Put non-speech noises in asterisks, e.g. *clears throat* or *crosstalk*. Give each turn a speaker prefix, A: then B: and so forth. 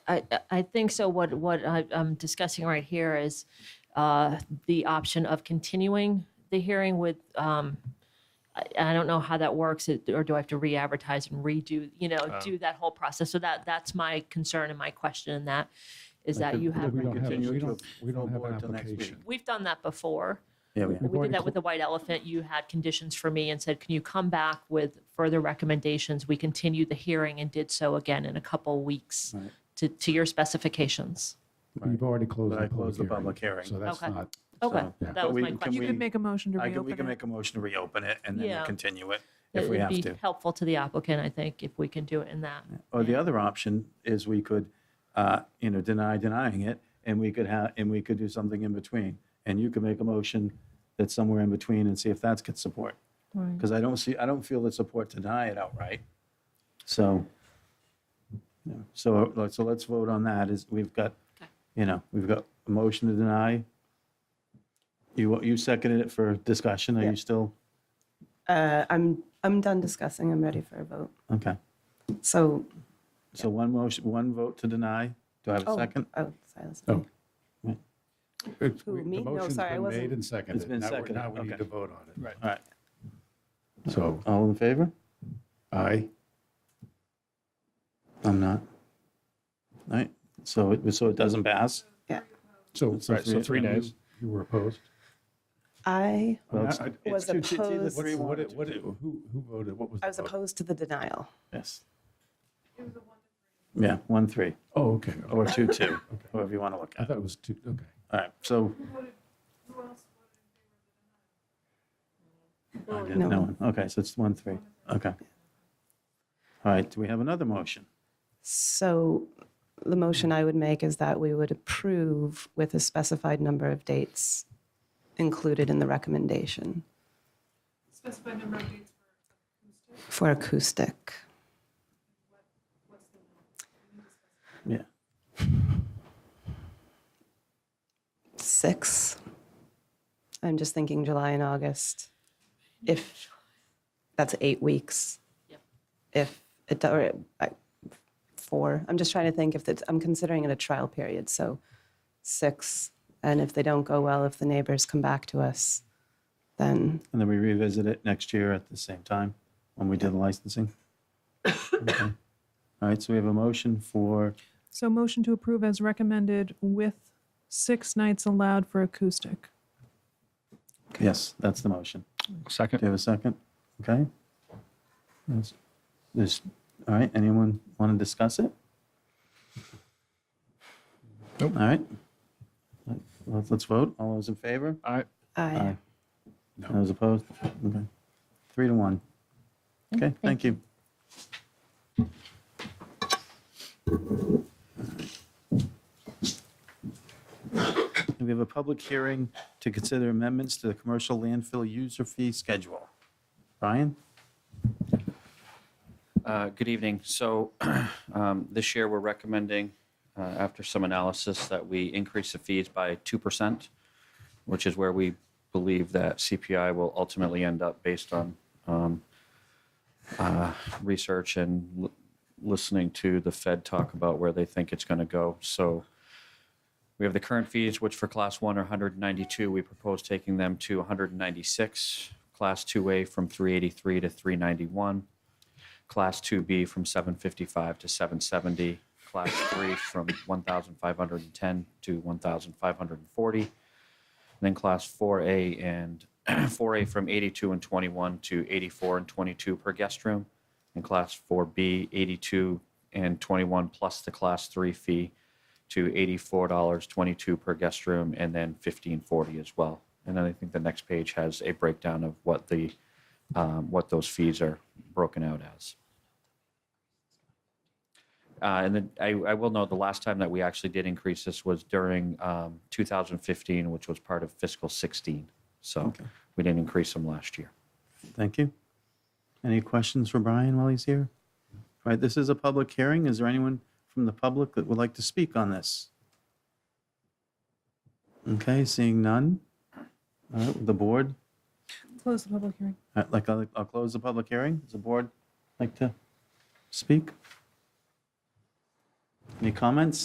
A: I, I- I think so. What, what I- I'm discussing right here is uh, the option of continuing the hearing with, um, I I don't know how that works, it- or do I have to re-advertise and redo, you know, do that whole process? So that, that's my concern and my question in that, is that you have,
B: we don't have,
C: Continue
B: we
C: to
B: don't, we don't have an
C: forward till next meeting.
B: application.
A: we've done that before.
D: Yeah, we
B: We've
A: We
B: already
A: did that with the White Elephant. You had conditions for me and said, can you come back with further recommendations? We continued the hearing and did so again in a couple weeks
D: Right.
A: to, to your specifications.
B: cl- We've already closed
C: But
B: the
C: I closed the
B: public
C: public
B: hearing.
C: hearing.
B: So that's
A: Okay.
B: not,
A: Okay,
C: So,
A: that
C: but
A: was
C: we-
A: my
C: can
A: question.
E: You could
C: we-
E: make a motion to
C: I can, we can
E: reopen it.
C: make a motion to reopen it and then
A: Yeah.
C: we'll continue it
A: It
C: if we
A: would
C: have
A: be
C: to.
A: helpful to the applicant, I think, if we can do it in that.
C: Or the other option is we could, uh, you know, deny denying it and we could have, and we could do something in between. And you could make a motion that's somewhere in between and see if that's gets support. Because I don't see, I don't feel that support to deny it outright. So, you know, so, let's- so let's vote on that is, we've got,
A: Okay.
C: you know, we've got a motion to deny. You, you seconded it for discussion. Are
F: Yeah.
C: you still?
F: Uh, I'm, I'm done discussing. I'm ready for a vote.
C: Okay.
F: So,
C: So one motion, one vote to deny. Do I have a
F: oh,
C: second?
F: oh, sorry. that's
B: Oh.
F: me.
B: it's,
F: Who,
B: we-
F: me?
B: the
F: No,
B: motion's
F: sorry, I
B: been
F: wasn't-
B: made and seconded.
C: been
B: Now we're-
C: seconded,
B: Now we
C: okay.
B: need to vote on it.
C: All right.
B: So
C: All in favor?
B: aye.
C: I'm not. All right, so it, so it doesn't pass?
B: So,
C: So
B: right, so
C: three-
B: three
C: and you-
B: days. You were opposed?
F: I
C: Well, it's-
B: I- I-
F: was
C: two- it's either
F: opposed,
B: What,
C: Three, one,
B: what,
C: or
B: it- what, it- who, who voted? What was
F: I
B: the
F: was
B: vote?
F: opposed to the denial.
C: Yes. Yeah, one, three,
B: Oh, okay. okay.
C: or two, two, however you want to look
B: I
C: at it.
B: thought it was two, okay.
C: All right, so. I didn't
F: No
C: know. Okay, so it's one, three, okay. All right, do we have another motion?
F: So the motion I would make is that we would approve with a specified number of dates included in the recommendation. Specified number of dates for acoustic?
C: Yeah,
F: six. I'm just thinking July and August. If that's eight weeks. If it do- or I- four. I'm just trying to think if it's, I'm considering it a trial period, so six. And if they don't go well, if the neighbors come back to us, then
C: and then we revisit it next year at the same time, when we do the licensing. Okay. All right, so we have a motion for
E: So motion to approve as recommended with six nights allowed for acoustic.
C: Yes, that's the motion. Do
G: Second.
C: you have a second? Okay. Yes. There's, all right, anyone want to discuss it?
G: Nope.
C: All right. Let's, let's vote. All those in favor?
G: All right.
F: I,
C: Those opposed? Okay. Three to one. Okay, thank you. We have a public hearing to consider amendments to the commercial landfill user fee schedule. Brian?
H: Uh, Good evening. So *clears throat* um, this year, we're recommending, uh, after some analysis, that we increase the fees by 2%, which is where we believe that CPI will ultimately end up based on um, uh, research and l- listening to the Fed talk about where they think it's going to go. So we have the current fees, which for Class 1 are 192. We propose taking them to 196, Class 2A from 383 to 391. Class 2B from 755 to 770, Class 3 from 1,510 to 1,540, and then Class 4A and *clears throat* 4A from 82 and 21 to 84 and 22 per guest room, and Class 4B 82 and 21 plus the Class 3 fee to $84.22 per guest room, and then 1540 as well. And then I think the next page has a breakdown of what the um, what those fees are broken out as. Uh, and then I, I will note the last time that we actually did increase this was during um, 2015, which was part of fiscal 16. So we didn't increase them last year.
C: Thank you. Any questions for Brian while he's here? All right, this is a public hearing. Is there anyone from the public that would like to speak on this? Okay, seeing none. All right, the board,
E: Close the public hearing.
C: All right, like, I'll, I'll close the public hearing. Does the board like to speak? Any comments?